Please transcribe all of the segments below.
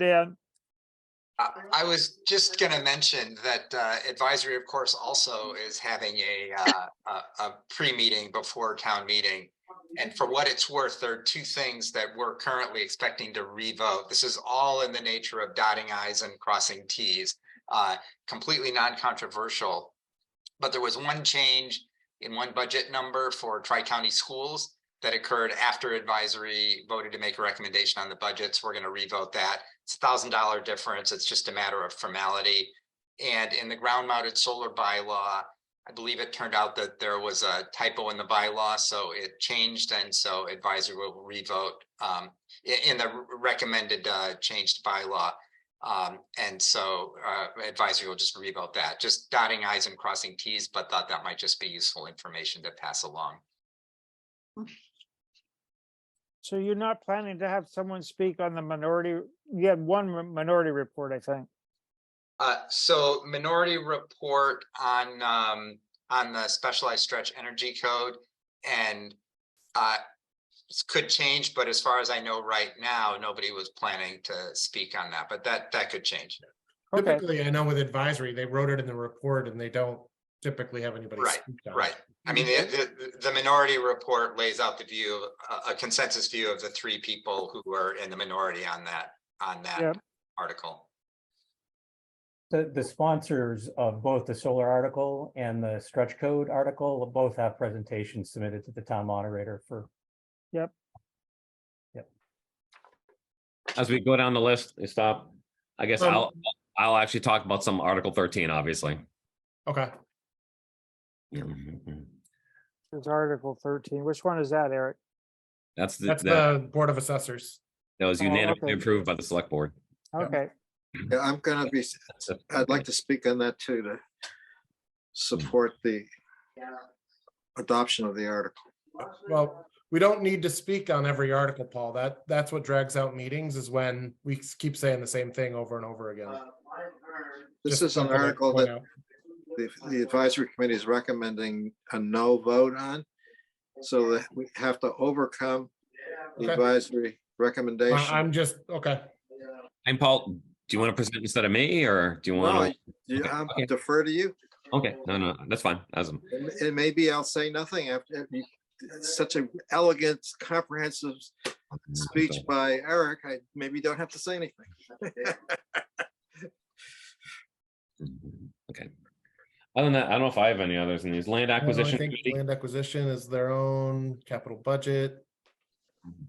Dan? I I was just gonna mention that uh, advisory, of course, also is having a, uh, a, a pre-meeting before town meeting. And for what it's worth, there are two things that we're currently expecting to revote. This is all in the nature of dotting i's and crossing t's. uh, Completely non-controversial. But there was one change in one budget number for tri-county schools that occurred after advisory voted to make a recommendation on the budgets. We're gonna revote that. It's a thousand dollar difference. It's just a matter of formality. And in the ground mounted solar bylaw, I believe it turned out that there was a typo in the bylaw, so it changed and so advisory will revote um i- in the recommended uh changed bylaw. Um, and so uh advisory will just revote that, just dotting i's and crossing t's, but thought that might just be useful information to pass along. So you're not planning to have someone speak on the minority, you had one mi- minority report, I think. Uh, so minority report on, um, on the specialized stretch energy code and, uh, this could change, but as far as I know right now, nobody was planning to speak on that, but that, that could change. Okay, Typically, I know with advisory, they wrote it in the report and they don't typically have anybody. Right, speak on it. Right. I mean, the, the, the minority report lays out the view, a- a consensus view of the three people who were in the minority on that, on Yeah. that article. The, the sponsors of both the solar article and the stretch code article both have presentations submitted to the town moderator for, as we go down the list and stop, I guess Um, I'll, I'll actually talk about some Article thirteen, obviously. Okay, it's Article thirteen. Which one is that, Eric? That's, the that's that the Board of Assessors. that was uh, oh, unanimously okay. approved by the select board. Yeah. Okay, Yeah, I'm gonna be, I'd like to speak on that too, to support the adoption of the article. Well, we don't need to speak on every article, Paul. That, that's what drags out meetings is when we s- keep saying the same thing over and over again. Uh, This Just is an something to article point that out. the, the advisory committee is recommending a no vote on. So that we have to overcome the Okay. advisory I- recommendation. I'm just, okay, And Paul, do you want to present instead of me or do you No, want I- yeah, okay, I okay. defer to you. to? Okay, no, no, that's fine. As, And and maybe I'll say nothing after you- such an elegant, comprehensive speech by Eric. I maybe don't have to say anything. Okay. Other than that, I don't know if I have any others in these. Land I don't know, I acquisition. think committee. land acquisition is their own capital budget. Mm-hmm.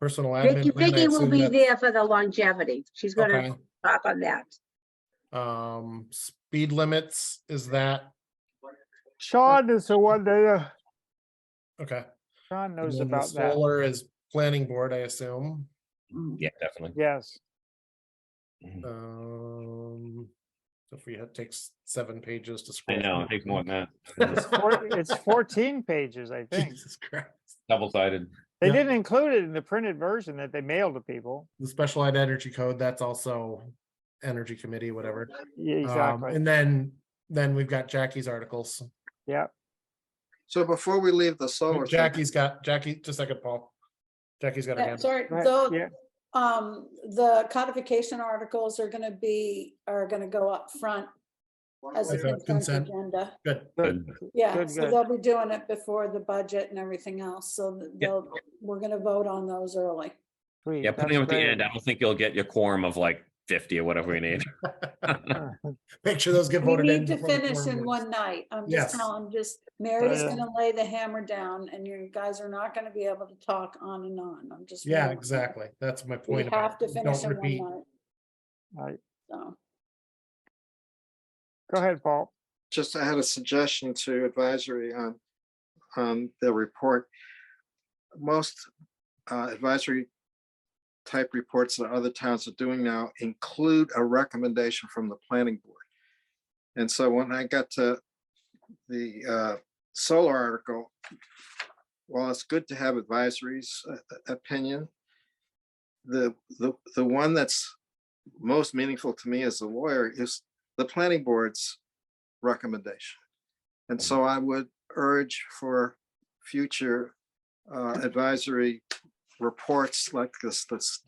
Personal admin. Vicky, plan, I Vicky will assume be that's- there for the longevity. She's Okay. gonna talk on that. Um, speed limits, is that, Sean is the one that, uh, okay. Sean And knows then the about that. Solar is planning board, I assume. Yeah, definitely. Yes, Um, so if we had takes seven pages to scroll. I know, it through. takes more than it's that. four- it's fourteen pages, I think. Jesus Christ. Double sided. They Yeah. didn't include it in the printed version that they mailed to people. The specialized energy code, that's also energy committee, whatever. Yeah, Um, Exactly, And then, then we've got Jackie's articles. yeah. So before we leave the solar. thing, Jackie's got, Jackie, just a second, Paul. Jackie's got a Yeah, hand. Sorry, Go ahead. the, Yeah. um, the codification articles are gonna be, are gonna go up front as a Okay, consent. consent agenda. Good. Good. Yeah, Good, so good. they'll be doing it before the budget and everything else, so that Yeah. they'll, we're gonna vote on those early. Sweet, Yeah, putting them that's at the great. end, I don't think you'll get your quorum of like fifty or whatever we need. Make sure those get We voted in. need to before the finish quorum in leaves. one night. I'm Yes. uh, just telling, just, Mary's Yeah. gonna lay the hammer down and you guys are not gonna be able to talk on and on. I'm just. Yeah, warning you. exactly. That's my We point. about have to it. finish Don't in repeat. one night. Right. So, Go ahead, Paul. Just I had a suggestion to advisory on, on the report. Most uh, advisory type reports that other towns are doing now include a recommendation from the planning board. And so when I got to the uh, solar article, while it's good to have advisories uh, uh, opinion, the, the, the one that's most meaningful to me as a lawyer is the planning board's recommendation. And so I would urge for future uh, advisory reports like this, this